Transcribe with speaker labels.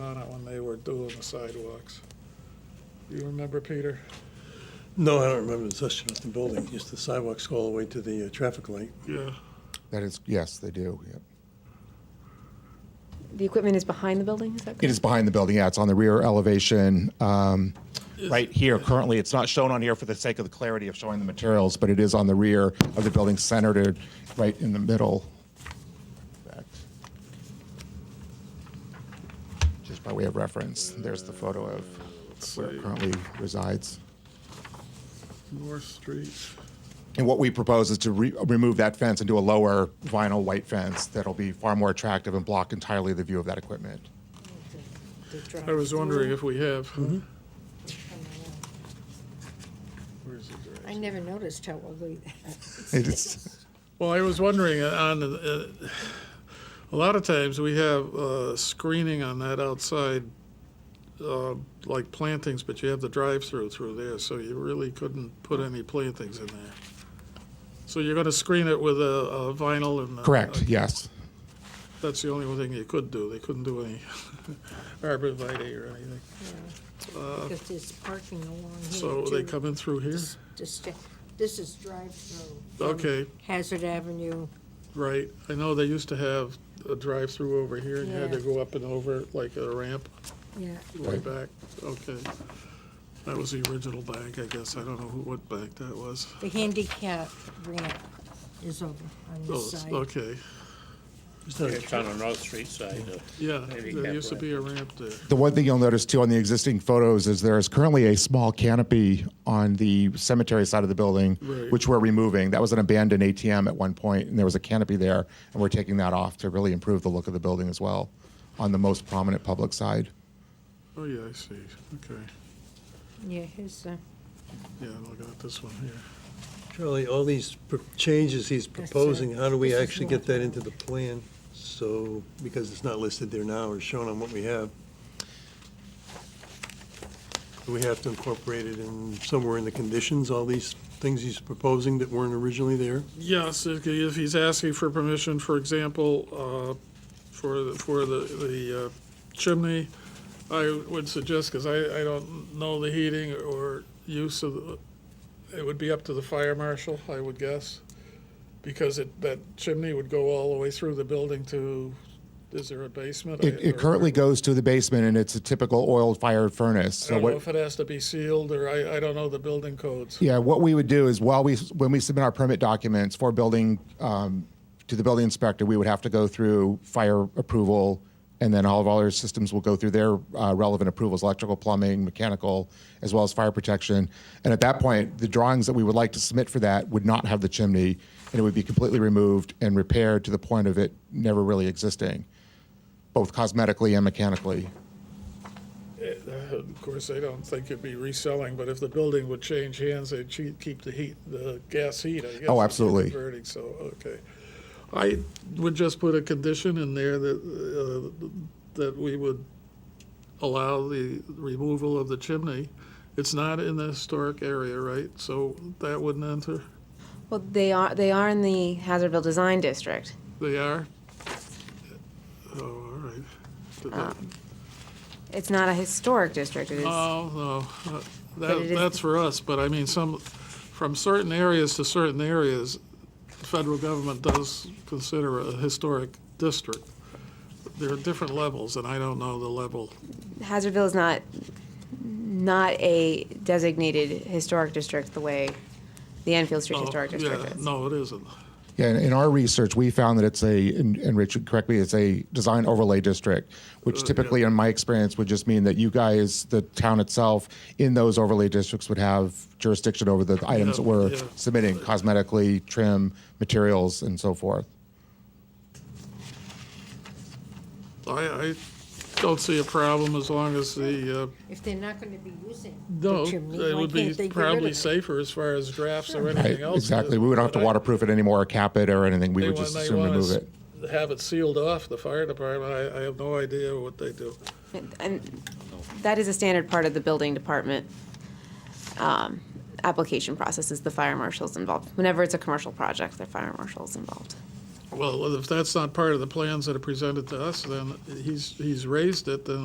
Speaker 1: doing the sidewalks. You remember, Peter?
Speaker 2: No, I don't remember the discussion of the building, just the sidewalks all the way to the uh, traffic light.
Speaker 1: Yeah.
Speaker 3: That is, yes, they do. Yep.
Speaker 4: The equipment is behind the building, is that
Speaker 3: It
Speaker 4: correct?
Speaker 3: is behind the building. Yeah, it's on the rear elevation. Um, right here, currently, it's not shown on here for the sake of the clarity of showing the materials, but it is on the rear of the building, centered it right in the middle. Back. Just by way of reference, there's the photo of
Speaker 1: Let's
Speaker 3: where
Speaker 1: see.
Speaker 3: it currently resides.
Speaker 1: North Street.
Speaker 3: And what we propose is to re- remove that fence and do a lower vinyl white fence that'll be far more attractive and block entirely the view of that equipment.
Speaker 1: I was wondering if we have.
Speaker 2: Mm-hmm.
Speaker 1: Where's the direction?
Speaker 5: I never noticed how ugly that
Speaker 3: It is.
Speaker 1: Well, I was wondering uh, on, the- uh, a lot of times we have uh, screening on that outside, uh, like plantings, but you have the drive-through through there, so you really couldn't put any plantings in there. So you're going to screen it with a- a vinyl and. uh,
Speaker 3: Correct, yes.
Speaker 1: That's the only one thing you could do. They couldn't do any arborvitae or anything.
Speaker 5: because there's parking along here.
Speaker 1: So they
Speaker 5: too.
Speaker 1: come in through here?
Speaker 5: This- This this is drive-through. from
Speaker 1: Okay,
Speaker 5: Hazard Avenue.
Speaker 1: right. I know they used to have a drive-through over here and you had to
Speaker 5: Yeah.
Speaker 1: go up and over like a ramp.
Speaker 5: Yeah,
Speaker 1: Way
Speaker 3: Right.
Speaker 1: back, okay. That was the original bank, I guess. I don't know who, what bank that was.
Speaker 5: the handicap ramp is over on
Speaker 1: Oh,
Speaker 5: this
Speaker 1: it's-
Speaker 5: side.
Speaker 1: okay,
Speaker 6: It's on the North Street side. uh,
Speaker 1: yeah, there
Speaker 6: Handicap
Speaker 1: used to
Speaker 6: ramp.
Speaker 1: be a ramp there.
Speaker 3: The one thing you'll notice too on the existing photos is there is currently a small canopy on the cemetery side of the building,
Speaker 1: Right.
Speaker 3: which we're removing. That was an abandoned ATM at one point, and there was a canopy there, and we're taking that off to really improve the look of the building as well on the most prominent public side.
Speaker 1: Oh, yeah, I see, okay.
Speaker 5: Yeah, here's the,
Speaker 1: Yeah, I'm looking at this one here.
Speaker 7: Charlie, all these pr- changes he's proposing, how do we actually get that into the plan? So, because it's not listed there now or shown on what we have. Do we have to incorporate it in, somewhere in the conditions, all these things he's proposing that weren't originally there?
Speaker 1: Yes, if he- if he's asking for permission, for example, uh, for, the- for the, the uh, chimney, I would suggest, because I, I don't know the heating or use of, the- it would be up to the fire marshal, I would guess, because it, that chimney would go all the way through the building to, is there a basement?
Speaker 3: It, it
Speaker 1: Or-
Speaker 3: currently goes to the basement, and it's a typical oil-fired furnace.
Speaker 1: I
Speaker 3: So
Speaker 1: don't know
Speaker 3: what?
Speaker 1: if it has to be sealed, or I, I don't know the building codes.
Speaker 3: Yeah, what we would do is while we, when we submit our permit documents for building, um, to the building inspector, we would have to go through fire approval, and then all of our systems will go through their uh, relevant approvals, electrical, plumbing, mechanical, as well as fire protection. And at that point, the drawings that we would like to submit for that would not have the chimney, and it would be completely removed and repaired to the point of it never really existing, both cosmetically and mechanically.
Speaker 1: It- uh, Of course, I don't think it'd be reselling, but if the building would change hands, they'd che- keep the heat, the gas heat, I guess.
Speaker 3: Oh, absolutely.
Speaker 1: Converting, so, okay. I would just put a condition in there that, uh, that we would allow the removal of the chimney. It's not in the historic area, right? So that wouldn't enter?
Speaker 4: Well, they are, they are in the Hazardville Design District.
Speaker 1: They are? Oh, all right. Did that-
Speaker 4: It's not a historic district, it is,
Speaker 1: Oh, no, uh,
Speaker 4: But it
Speaker 1: that,
Speaker 4: is-
Speaker 1: that's for us, but I mean, some, from certain areas to certain areas, the federal government does consider a historic district. There are different levels, and I don't know the level.
Speaker 4: Hazardville is not, not a designated historic district the way the Enfield Street
Speaker 1: Oh,
Speaker 4: Historic District
Speaker 1: yeah,
Speaker 4: is.
Speaker 1: No, it isn't.
Speaker 3: Yeah, in, in our research, we found that it's a, and, and Richard, correct me, it's a design overlay district,
Speaker 1: Oh,
Speaker 3: which typically, in my experience, would just mean that you guys, the town itself, in those overlay districts would have jurisdiction over the items that we're
Speaker 1: yeah.
Speaker 3: submitting, cosmetically, trim, materials, and so forth.
Speaker 1: I, I don't see a problem as long as the, uh,
Speaker 5: if they're not going to be using
Speaker 1: no,
Speaker 5: the chimney,
Speaker 1: it
Speaker 5: why
Speaker 1: would
Speaker 5: can't they
Speaker 1: be
Speaker 5: get rid of
Speaker 1: probably
Speaker 5: it?
Speaker 1: safer as far as drafts or
Speaker 3: Right,
Speaker 1: anything else.
Speaker 3: exactly. We would not have to
Speaker 1: But I-
Speaker 3: waterproof it anymore, or cap it, or anything. We
Speaker 1: They
Speaker 3: would
Speaker 1: want-
Speaker 3: just
Speaker 1: they
Speaker 3: assume
Speaker 1: want
Speaker 3: remove
Speaker 1: us
Speaker 3: it.
Speaker 1: to Have it sealed off, the fire department, I, I have no idea what they do.
Speaker 4: And that is a standard part of the building department um, application process is the fire marshal's involved. Whenever it's a commercial project, the fire marshal's involved.
Speaker 1: Well, if that's not part of the plans that are presented to us, then he's, he's raised it, then